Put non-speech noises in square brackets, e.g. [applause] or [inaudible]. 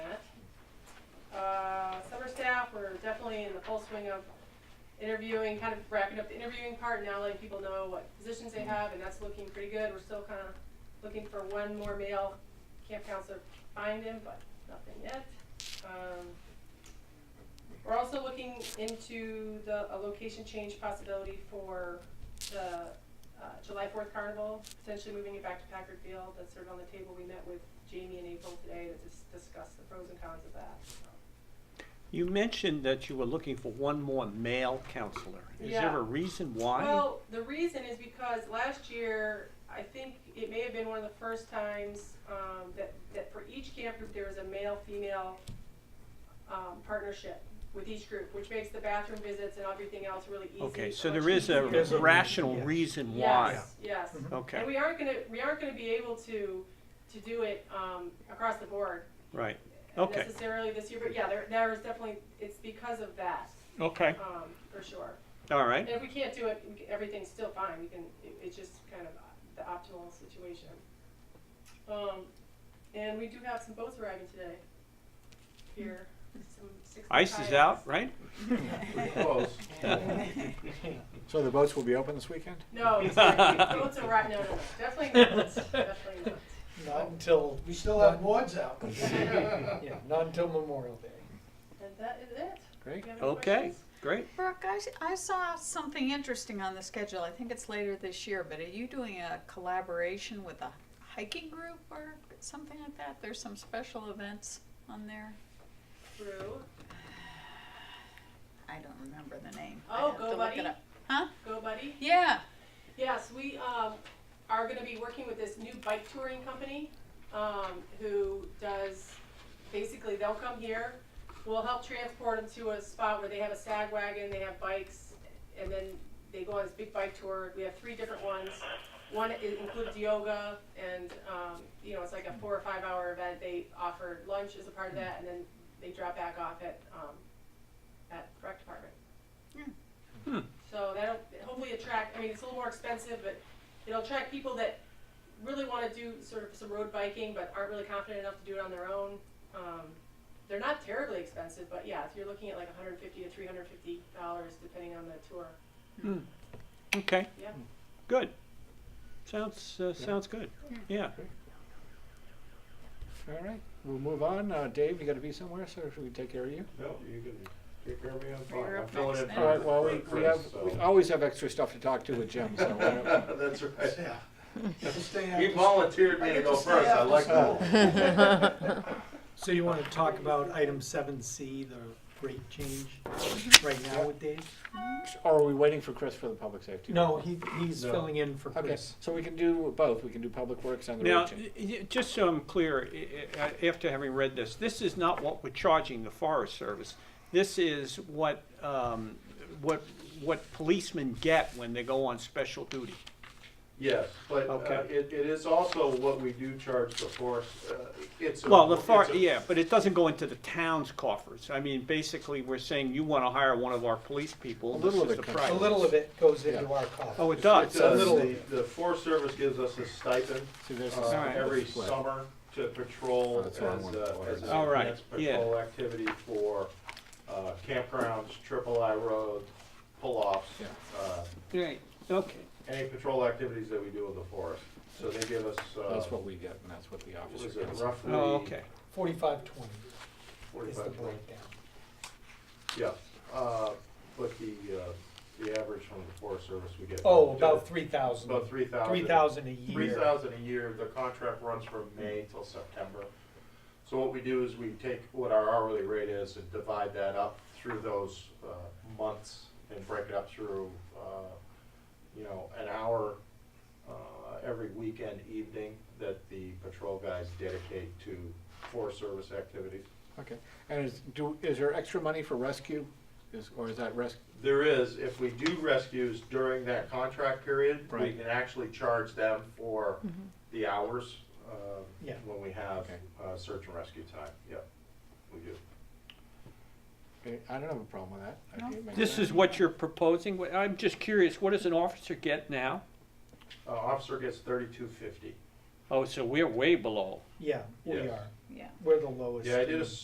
Uh, we're definitely in the full swing of interviewing, kind of wrapping up the interviewing part, now letting people know what positions they have, and that's looking pretty good. We're still kind of looking for one more male camp counselor, to find him, but nothing yet. Um, We're also looking into the, a location change possibility for the uh, July Fourth Carnival, potentially moving it back to Packard Field. That's sort of on the table. We met with Jamie and April today to dis- discuss the pros and cons of that. You mentioned that you were looking for one more male counselor. Is Yeah. there a reason why? Well, the reason is because last year, I think it may have been one of the first times um, that, that for each camp group, there was a male-female um, partnership with each group, which makes the bathroom visits and everything else really easy. okay, so much there is a easier. There's a reason, rational yes. reason why. Yes, yes. Mm-hmm. And Okay, we aren't gonna, we aren't gonna be able to, to do it um, across the board right. Okay. necessarily this year, but yeah, there, there is definitely, it's because of that, Okay, um, for sure. all And right. if we can't do it, we can- everything's still fine, we can, it- it's just kind of the optimal situation. Um, and we do have some boats arriving today, here, some six. Ice is out, right? Close. So the boats will be open this weekend? No, it's [laughs] not. boats are right, no, no, no, definitely not, definitely not. Not until, We still have boards out. [laughs] yeah, not until Memorial Day. And that is it. Great. You have any Okay, questions? great. Brooke, I, s- I saw something interesting on the schedule. I think it's later this year, but are you doing a collaboration with a hiking group or something like that? There's some special events on there. Drew, I don't remember the name. I Oh, have Go to look Buddy? it up. Huh? go buddy. Yeah. Yes, we um, are going to be working with this new bike touring company um, who does basically they'll come here, we'll help transport them to a spot where they have a sag wagon, they have bikes, and then they go on this big bike tour. We have three different ones. One i- includes yoga, and um, you know it's like a four or five hour event. They offer lunch as a part of that, and then they drop back off at um, at the rec department. Hmm, So that'll hopefully attract, I mean, it's a little more expensive, but it'll attract people that really wanna do sort of some road biking, but aren't really confident enough to do it on their own. Um, they're not terribly expensive, but yeah, if you're looking at like hundred and fifty to three hundred and fifty dollars, depending on the tour, hmm. Okay, yeah. good. Sounds, uh, sounds good. Yeah. All right, we'll move on. Uh, Dave, you gotta be somewhere, so should we take care of you? No, you can take care of me, I'm You're fine. I'm up filling next in then. All right, for- well, we, for we have, Chris, we so. always have extra stuff to talk to with Jim, so. uh, why don't- [laughs] That's right. Have to stay He after- volunteered me I to get go to stay first, I after like school. that. [laughs] So you wanna talk about item seven C, the rate change right now with Dave? [laughs] Or are we waiting for Chris for the public safety? No, he, he's No. filling in for Okay, Chris. so we can do both. We can do public works and the Now, road change. y- y- just so I'm clear, i- i- uh, after having read this, this is not what we're charging the Forest Service. This is what, um, what, what policemen get when they go on special duty. Yes, but uh, Okay. it, it is also what we do charge the force, uh, it's a. Well, the far, it's a- yeah, but it doesn't go into the town's coffers. I mean, basically, we're saying you wanna hire one of our police people, A this little is of the it comes- price. A little of it goes into Yeah. our cost. Oh, it It does? a does, little- the, the forest service gives us a stipend, See, there's uh, this- Alright. every Split. summer to patrol Oh, as, that's what I wanted uh, to as an order. Alright, enhanced yeah. patrol activity for, uh, campgrounds, triple I road, pull-offs. Yeah. uh, Right, okay. Any patrol activities that we do in the forest, so they give us, uh, That's what we get, and that's what the what officer is it gets. roughly? Oh, okay. Forty-five twenty is the Forty-five, twenty? breakdown. yeah, uh, but the, uh, the average from the forest service we get. Oh, about three thousand. About three thousand. Three thousand a Three year. thousand a year, the contract runs from May till September. So what we do is we take what our hourly rate is and divide that up through those, uh, months and break it up through, uh, you know, an hour, uh, every weekend evening that the patrol guys dedicate to Forest Service activities. Okay, and is, do, is there extra money for rescue? Is, or is that res, There is, if we do rescues during that contract period, we Right. can actually charge them for the hours, um, Yeah. when we have, Okay. uh, search and rescue time, yep, we do. I I don't have a problem with that. I No. can't make This that. is what you're proposing? Wh- I'm just curious, what does an officer get now? Uh, officer gets thirty-two fifty. Oh, so we're way below. Yeah, we Yes. are. Yeah. We're the lowest. Yeah, I did a in-